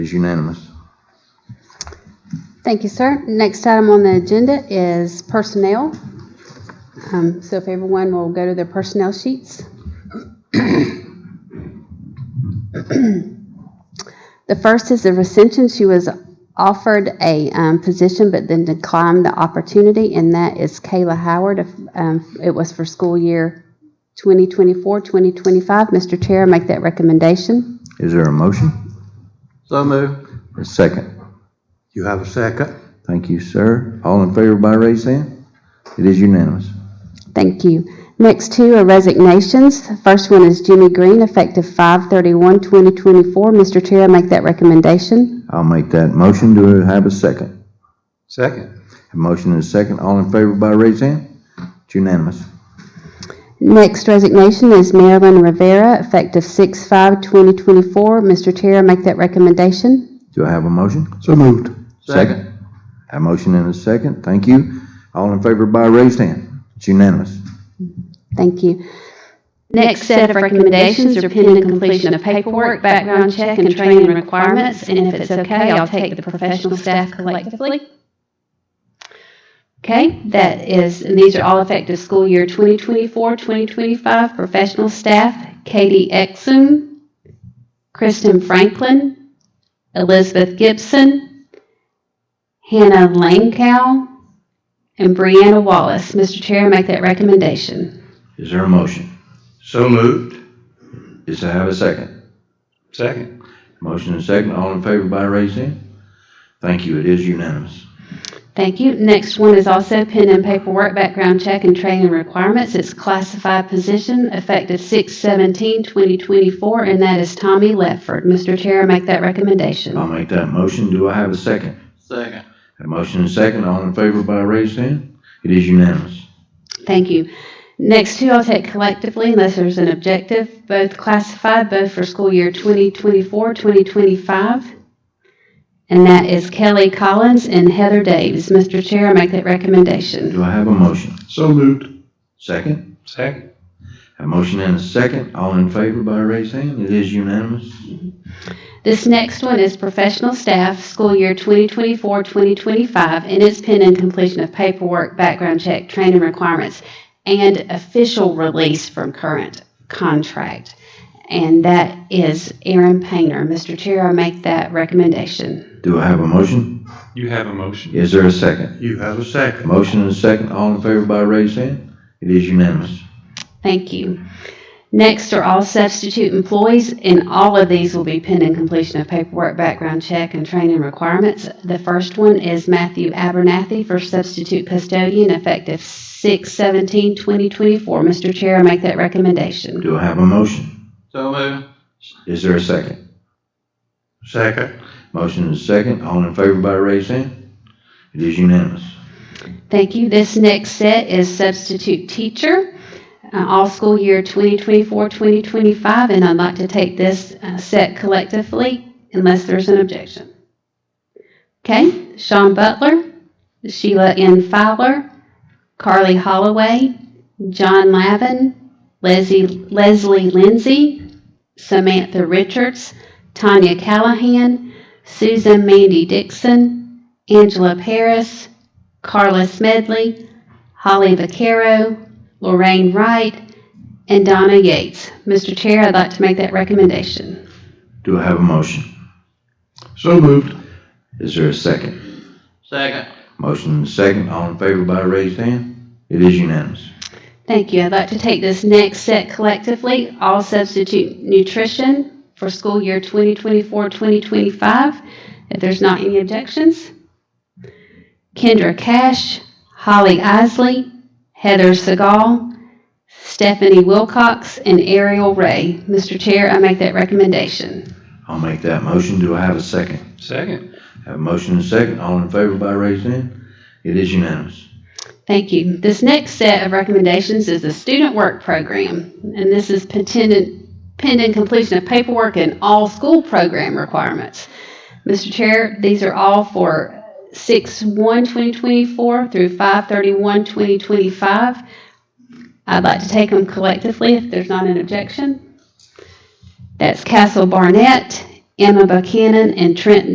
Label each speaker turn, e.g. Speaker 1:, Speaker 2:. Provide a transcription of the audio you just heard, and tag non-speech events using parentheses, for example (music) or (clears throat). Speaker 1: Is unanimous.
Speaker 2: Thank you, sir. Next item on the agenda is personnel. Um, So if everyone will go to their personnel sheets. (clears throat) The first is the recension. She was offered a um, position but then declined the opportunity, and that is Kayla Howard. If, um, It was for school year 2024, 2025. Mr. Chair, make that recommendation.
Speaker 1: Is there a motion?
Speaker 3: So moved.
Speaker 1: A second.
Speaker 3: You have a second?
Speaker 1: Thank you, sir. All in favor by raised hand? It is unanimous.
Speaker 2: Thank you. Next two are resignations. First one is Jimmy Green, effective 5/31/2024. Mr. Chair, I make that recommendation.
Speaker 1: I'll make that motion. Do I have a second?
Speaker 3: Second.
Speaker 1: A motion and a second. All in favor by raised hand? It's unanimous.
Speaker 2: Next resignation is Marilyn Rivera, effective 6/5/2024. Mr. Chair, I make that recommendation.
Speaker 1: Do I have a motion?
Speaker 3: So moved.
Speaker 1: A motion and a second. Thank you. All in favor by raised hand? It's unanimous.
Speaker 2: Thank you.
Speaker 4: Next set of recommendations are pending completion of paperwork, background check, and training requirements, and if it's okay, I'll take the professional staff collectively. Okay, that is, and these are all effective school year 2024, 2025, professional staff, Katie Exum, Kristen Franklin, Elizabeth Gibson, Hannah Langkow, and Brianna Wallace. Mr. Chair, make that recommendation.
Speaker 1: Is there a motion?
Speaker 3: So moved.
Speaker 1: Is I have a second?
Speaker 3: Second.
Speaker 1: Motion and a second. All in favor by raised hand? Thank you. It is unanimous.
Speaker 4: Thank you. Next one is also pen and paperwork, background check, and training requirements. It's classified position, effective 6/17/2024, and that is Tommy Lefford. Mr. Chair, I make that recommendation.
Speaker 1: I'll make that motion. Do I have a second?
Speaker 3: Second.
Speaker 1: A motion and a second. All in favor by raised hand? It is unanimous.
Speaker 4: Thank you. Next two, I'll take collectively unless there's an objective, both classified, both for school year 2024-2025, and that is Kelly Collins and Heather Davis. Mr. Chair, I make that recommendation.
Speaker 1: Do I have a motion?
Speaker 3: So moved.
Speaker 1: Second?
Speaker 3: Second.
Speaker 1: A motion and a second. All in favor by raised hand? It is unanimous.
Speaker 4: This next one is professional staff, school year 2024-2025, and it's pending completion of paperwork, background check, training requirements, and official release from current contract. And that is Aaron Painter. Mr. Chair, I make that recommendation.
Speaker 1: Do I have a motion?
Speaker 3: You have a motion.
Speaker 1: Is there a second?
Speaker 3: You have a second.
Speaker 1: Motion and a second. All in favor by raised hand? It is unanimous.
Speaker 4: Thank you. Next are all substitute employees, and all of these will be pending completion of paperwork, background check, and training requirements. The first one is Matthew Abernathy for substitute custodian effective 6/17/2024. Mr. Chair, I make that recommendation.
Speaker 1: Do I have a motion?
Speaker 3: So moved.
Speaker 1: Is there a second?
Speaker 3: Second.
Speaker 1: Motion and a second. All in favor by raised hand? It is unanimous.
Speaker 4: Thank you. This next set is substitute teacher, uh, all school year 2024-2025, and I'd like to take this uh, set collectively unless there's an objection. Okay, Sean Butler, Sheila N. Fowler, Carly Holloway, John Lavin, Leslie Leslie Lindsay, Samantha Richards, Tanya Callahan, Susan Mandy Dixon, Angela Paris, Carla Smedley, Holly Vaquero, Lorraine Wright, and Donna Yates. Mr. Chair, I'd like to make that recommendation.
Speaker 1: Do I have a motion?
Speaker 3: So moved.
Speaker 1: Is there a second?
Speaker 3: Second.
Speaker 1: Motion and a second. All in favor by raised hand? It is unanimous.
Speaker 4: Thank you. I'd like to take this next set collectively, all substitute nutrition for school year 2024-2025. If there's not any objections. Kendra Cash, Holly Isley, Heather Segal, Stephanie Wilcox, and Ariel Ray. Mr. Chair, I make that recommendation.
Speaker 1: I'll make that motion. Do I have a second?
Speaker 3: Second.
Speaker 1: Have a motion and a second. All in favor by raised hand? It is unanimous.
Speaker 4: Thank you. This next set of recommendations is the student work program, and this is pending, pending completion of paperwork and all school program requirements. Mr. Chair, these are all for 6/1/2024 through 5/31/2025. I'd like to take them collectively if there's not an objection. That's Castle Barnett, Emma Buchanan, and Trent